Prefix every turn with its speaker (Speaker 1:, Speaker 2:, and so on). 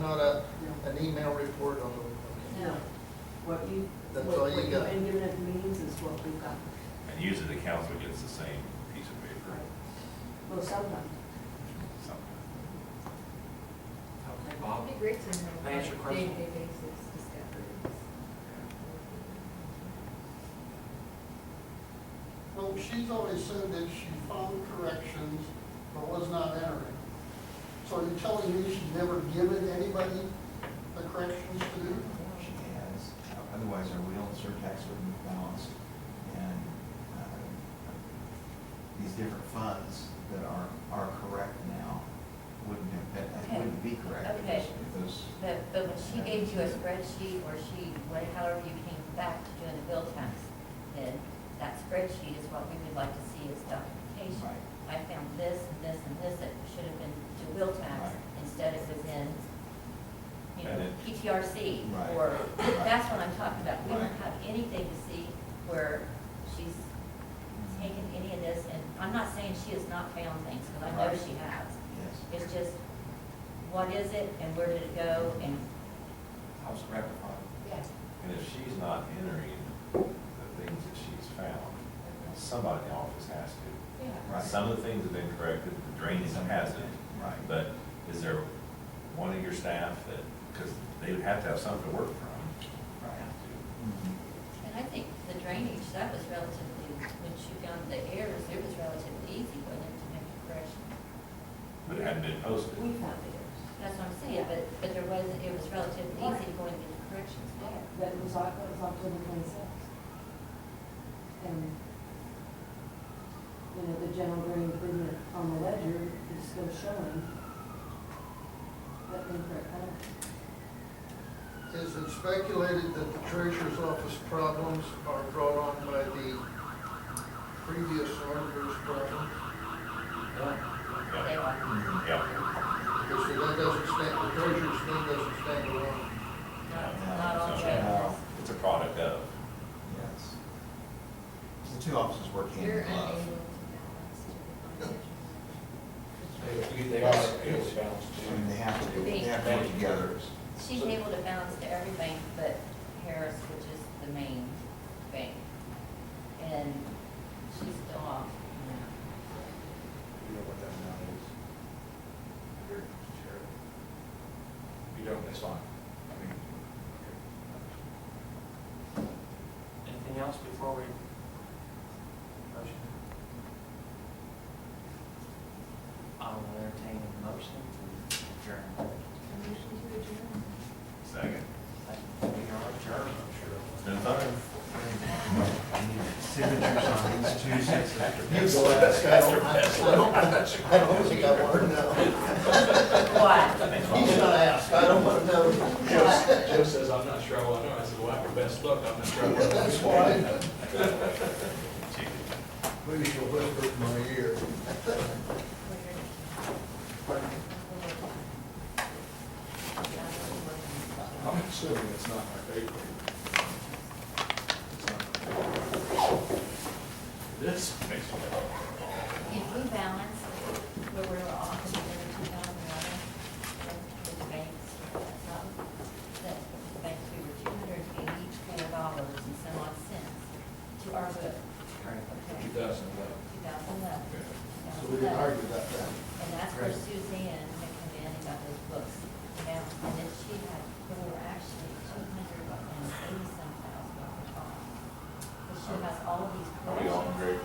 Speaker 1: an email report on the,
Speaker 2: No, what you,
Speaker 1: That's
Speaker 2: what
Speaker 1: all
Speaker 2: what
Speaker 1: you
Speaker 2: you've
Speaker 1: got.
Speaker 2: been giving at the meetings is what we've got.
Speaker 3: And usually the council gets the same piece of paper,
Speaker 2: Well, sometimes.
Speaker 3: something.
Speaker 4: Okay,
Speaker 5: It'd
Speaker 4: Bob?
Speaker 5: be great to know. on a
Speaker 4: May I ask you a question?
Speaker 5: Day-to-day basis discoveries.
Speaker 1: well, she's always said that she found corrections but was not entering. So are you telling me she's never given anybody the corrections to do?
Speaker 6: Well, She has, otherwise our wheel and surtax would move balanced. And uh, these different funds that are, are correct now wouldn't have, been- that
Speaker 7: Okay.
Speaker 6: wouldn't be correct if
Speaker 7: Okay.
Speaker 6: those- if those.
Speaker 7: But, but when she gave you a spreadsheet, or she, what- however you came back to doing the bill tax, then that spreadsheet is what we would like to see as documentation.
Speaker 6: Right.
Speaker 7: I found this, and this, and this, that should have been to bill
Speaker 6: Right.
Speaker 7: tax, instead it was in, you
Speaker 3: And
Speaker 7: know,
Speaker 3: it-
Speaker 7: PTRC,
Speaker 6: Right.
Speaker 7: or,
Speaker 6: Right.
Speaker 7: that's what I'm talking about. We don't
Speaker 6: Right.
Speaker 7: have anything to see where she's
Speaker 6: Mm-hmm.
Speaker 7: taken any of this, and I'm not saying she has not found things, because I know
Speaker 6: Right.
Speaker 7: she has.
Speaker 6: Yes,
Speaker 7: It's just, what is it and where did it go and,
Speaker 6: I was gratified.
Speaker 5: Yeah.
Speaker 3: And if she's not entering the things that she's found, somebody in the office has to.
Speaker 5: Yeah.
Speaker 6: Right.
Speaker 3: Some of the things have been corrected, the drainage hasn't.
Speaker 6: Right.
Speaker 3: But is there one of your staff that, because they would have to have something to work from.
Speaker 6: Right. Mhm.
Speaker 7: and I think the drainage, that was relatively, when she found the errors, it was relatively easy, wasn't it, to make the correction?
Speaker 3: But it hadn't been posted.
Speaker 2: We found errors.
Speaker 7: That's what I'm saying, but, but there was, it was relatively easy to go and get the corrections there.
Speaker 2: That was, Oc- that was October twenty-sixth. And, you know, the general grade improvement on the ledger is still showing that incorrect color.
Speaker 1: Is it speculated that the treasurer's office problems are brought on by the previous auditor's problems?
Speaker 7: They
Speaker 3: Yeah.
Speaker 7: are,
Speaker 3: Yeah.
Speaker 1: Because that doesn't stand, the treasurer's thing doesn't stand alone.
Speaker 7: not, not all
Speaker 3: So,
Speaker 7: treasurers.
Speaker 3: It's a product of.
Speaker 6: Yes. The two offices work hand
Speaker 5: You're
Speaker 6: in
Speaker 5: unable to
Speaker 6: glove.
Speaker 5: balance to the financial.
Speaker 4: They- They are, it was balanced
Speaker 6: I mean, they
Speaker 4: too.
Speaker 6: have to, they have to work together.
Speaker 7: She's able to balance to everything but Harris, which is the main bank. And she's still off.
Speaker 4: You know what that amount is? Here, share it. You don't, that's fine. I mean, okay.
Speaker 8: Anything else before we? Motion? I will entertain a motion to adjourn.
Speaker 5: Motion to adjourn.
Speaker 3: Second.
Speaker 8: We are adjourned,
Speaker 3: It's been fun.
Speaker 6: I need Signatures on these two sets.
Speaker 1: Go ask, I don't, I don't, I don't think I want to know.
Speaker 7: What?
Speaker 3: Thanks, Bob.
Speaker 1: He's gonna ask, I don't want to know.
Speaker 4: Joe Joe says, I'm not sure I want to know. I said, well, after best look, I'm not sure I want to know.
Speaker 1: That's why,
Speaker 3: Chicken.
Speaker 1: maybe you'll whisper in my ear.
Speaker 4: I'm assuming it's not my favorite. It's not my favorite.
Speaker 3: This makes me.
Speaker 7: If we balance where we're off in two thousand eleven, with the banks, that's not, that the banks, we were two hundred eighty-four dollars and some odd cents to our book. Okay,
Speaker 4: 2011.
Speaker 7: two thousand eleven.
Speaker 1: So we didn't argue about that.
Speaker 7: And that's where Suzanne had come in and got those books. Now, and then she had, we were actually two hundred and eighty-some thousand dollars off. But she has all of these
Speaker 3: Are we all
Speaker 7: corrections.
Speaker 3: in agreement?